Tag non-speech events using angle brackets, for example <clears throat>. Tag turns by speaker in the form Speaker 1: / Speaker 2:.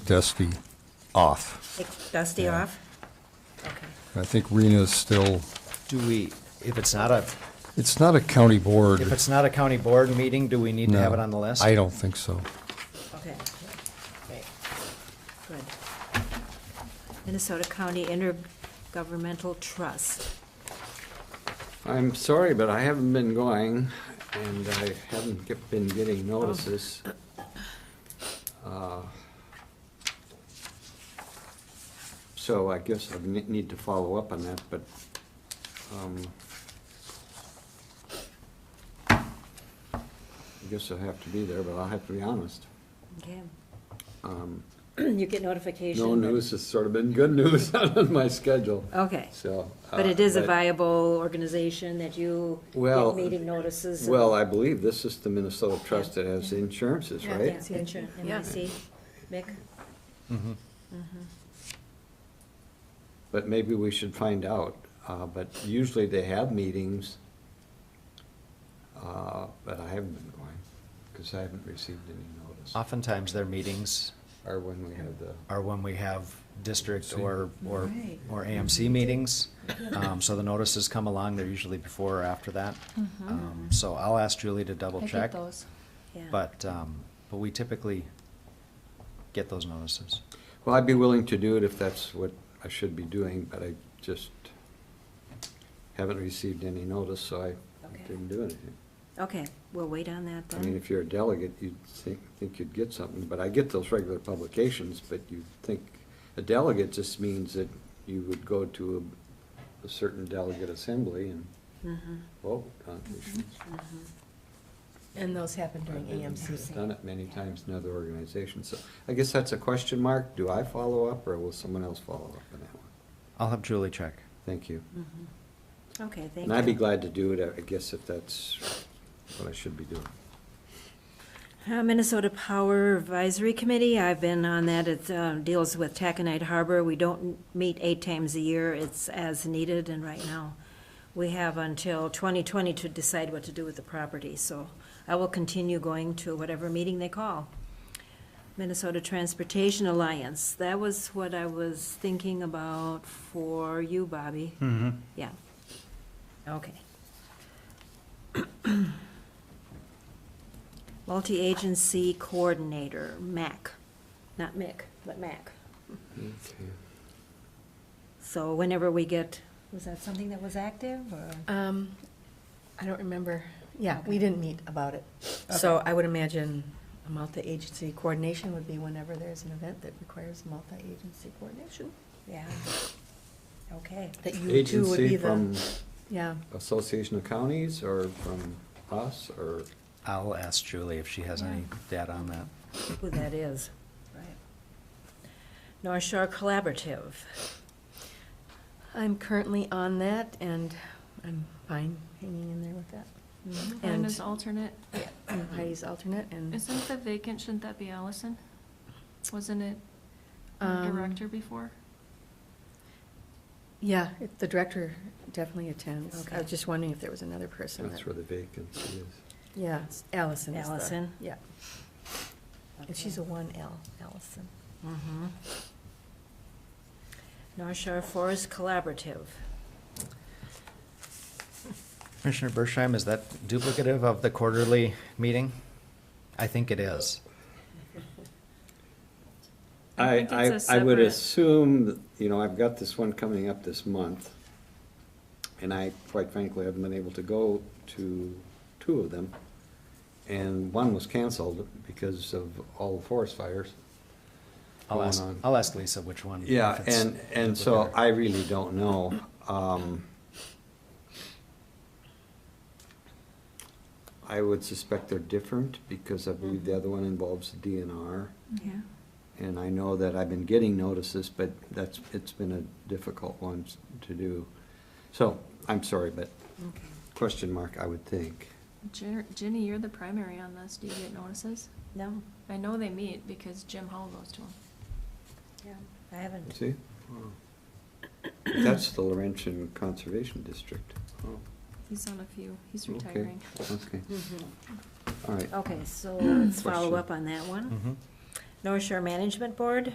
Speaker 1: Dusty off.
Speaker 2: Take Dusty off? Okay.
Speaker 1: I think Rena's still,
Speaker 3: Do we, if it's not a,
Speaker 1: it's not a county board.
Speaker 3: if it's not a county board meeting, do we need to have
Speaker 1: no.
Speaker 3: it on the list?
Speaker 1: I don't think so.
Speaker 2: Okay, great, good. Minnesota County Intergovernmental Trust.
Speaker 4: I'm sorry, but I haven't been going, and I haven't get- been getting notices. Uh, So I guess I ne- need to follow up on that, but, um, I guess I'll have to be there, but I'll have to be honest.
Speaker 2: Okay.
Speaker 4: Um,
Speaker 2: <clears throat> You get notification?
Speaker 4: No news has sort of been good news <laughs> on my schedule,
Speaker 2: Okay,
Speaker 4: so. uh,
Speaker 2: Oh. but it is a viable organization that you
Speaker 4: Well,
Speaker 2: get meeting notices? and-
Speaker 4: Well, I believe this is the Minnesota Trust that has the insurances,
Speaker 2: Yeah,
Speaker 4: right?
Speaker 2: it's the insurance, MIC, Mick?
Speaker 3: Mm-hmm.
Speaker 4: But maybe we should find out. Uh, But usually they have meetings, uh, but I haven't been going because I haven't received any notice.
Speaker 3: Oftentimes their meetings
Speaker 4: Or when we have the,
Speaker 3: are when we have district
Speaker 4: See.
Speaker 3: or, or,
Speaker 2: Right.
Speaker 3: or AMC meetings. Um, so the notices come along, they're usually before or after that. Um, so I'll ask Julie to double
Speaker 5: Mm-hmm. I
Speaker 3: check.
Speaker 5: get those.
Speaker 2: Yeah.
Speaker 3: But, um, but we typically get those notices.
Speaker 4: well, I'd be willing to do it if that's what I should be doing, but I just haven't received any notice, so I
Speaker 2: Okay.
Speaker 4: didn't do anything.
Speaker 2: Okay, we'll wait on that
Speaker 4: I mean,
Speaker 2: then.
Speaker 4: if you're a delegate, you'd think, think you'd get something, but I get those regular publications, but you think, a delegate just means that you would go to a, a certain delegate assembly and
Speaker 5: Mm-hmm.
Speaker 4: oh,
Speaker 2: Mhm,
Speaker 4: vote on issues.
Speaker 2: mhm.
Speaker 5: And those happen during
Speaker 4: I've Done
Speaker 5: AMC.
Speaker 4: it many times in other organizations, so I guess that's a question mark, do I follow up, or will someone else follow up on that one?
Speaker 3: I'll have Julie check.
Speaker 4: Thank you.
Speaker 2: Okay, thank you.
Speaker 4: And I'd be glad to do it, I guess, if that's what I should be doing.
Speaker 2: Uh, Minnesota Power Advisory Committee, I've been on that. It uh, deals with Taconite Harbor. We don't meet eight times a year. It's as needed, and right now, we have until 2020 to decide what to do with the property. So I will continue going to whatever meeting they call. Minnesota Transportation Alliance, that was what I was thinking about for you, Bobby. Mm-hmm. Yeah. Okay. Multi-agency coordinator, MAC, not Mick, but MAC. So whenever we get, was that something that was active or?
Speaker 5: Um, I don't remember. Yeah, we didn't meet about it. So I would imagine a multi-agency coordination would be whenever there's an event that requires multi-agency coordination.
Speaker 2: Yeah. Okay.
Speaker 5: That you two would be
Speaker 4: Agency from
Speaker 5: the, yeah.
Speaker 4: Association of Counties, or from us, or?
Speaker 3: I'll ask Julie if she has any data on that.
Speaker 2: Who that is. Right. North Shore Collaborative.
Speaker 5: I'm currently on that and I'm fine hanging in there with that.
Speaker 6: Mm-hmm. And
Speaker 5: And- <clears throat>
Speaker 6: as alternate,
Speaker 5: I'm Heidi's alternate and,
Speaker 6: isn't the vacant, shouldn't that be Allison? Wasn't it
Speaker 5: Um,
Speaker 6: director before?
Speaker 5: yeah, it- the director definitely attends. I
Speaker 2: Okay.
Speaker 5: was just wondering if there was another person that,
Speaker 4: That's where the vacancy is.
Speaker 5: yeah, it's Allison is the-
Speaker 2: Allison?
Speaker 5: Yeah, and she's a one L, Allison.
Speaker 2: Mm-hmm. North Shore Forest Collaborative.
Speaker 3: Commissioner Bershheim, is that duplicative of the quarterly meeting? I think it is.
Speaker 6: I
Speaker 4: I,
Speaker 6: think
Speaker 4: I,
Speaker 6: it's a
Speaker 4: I would
Speaker 6: separate-
Speaker 4: assume, that, you know, I've got this one coming up this month, and I, quite frankly, haven't been able to go to two of them. And one was canceled because of all the forest fires.
Speaker 3: I'll
Speaker 4: going
Speaker 3: ask,
Speaker 4: on.
Speaker 3: I'll ask Lisa which one.
Speaker 4: Yeah,
Speaker 3: if it's
Speaker 4: and, and so
Speaker 3: duplicative.
Speaker 4: I really don't know. Um, I would suspect they're different, because I believe the other one involves the DNR.
Speaker 2: Yeah.
Speaker 4: And I know that I've been getting notices, but that's, it's been a difficult one s- to do. So, I'm sorry, but
Speaker 2: Okay.
Speaker 4: question mark, I would think.
Speaker 6: Jer- Ginny, you're the primary on this, do you get notices?
Speaker 2: No,
Speaker 6: I know they meet because Jim Hall goes to them.
Speaker 2: yeah, I haven't.
Speaker 4: See? Wow. That's the Laurentian Conservation District. Oh,
Speaker 6: He's on a few, he's
Speaker 4: Okay.
Speaker 6: retiring.
Speaker 4: okay,
Speaker 2: Mhm.
Speaker 4: all right. <clears throat>
Speaker 2: Okay, so let's follow
Speaker 4: Question.
Speaker 2: up on that one.
Speaker 3: Mhm.
Speaker 2: North Shore Management Board,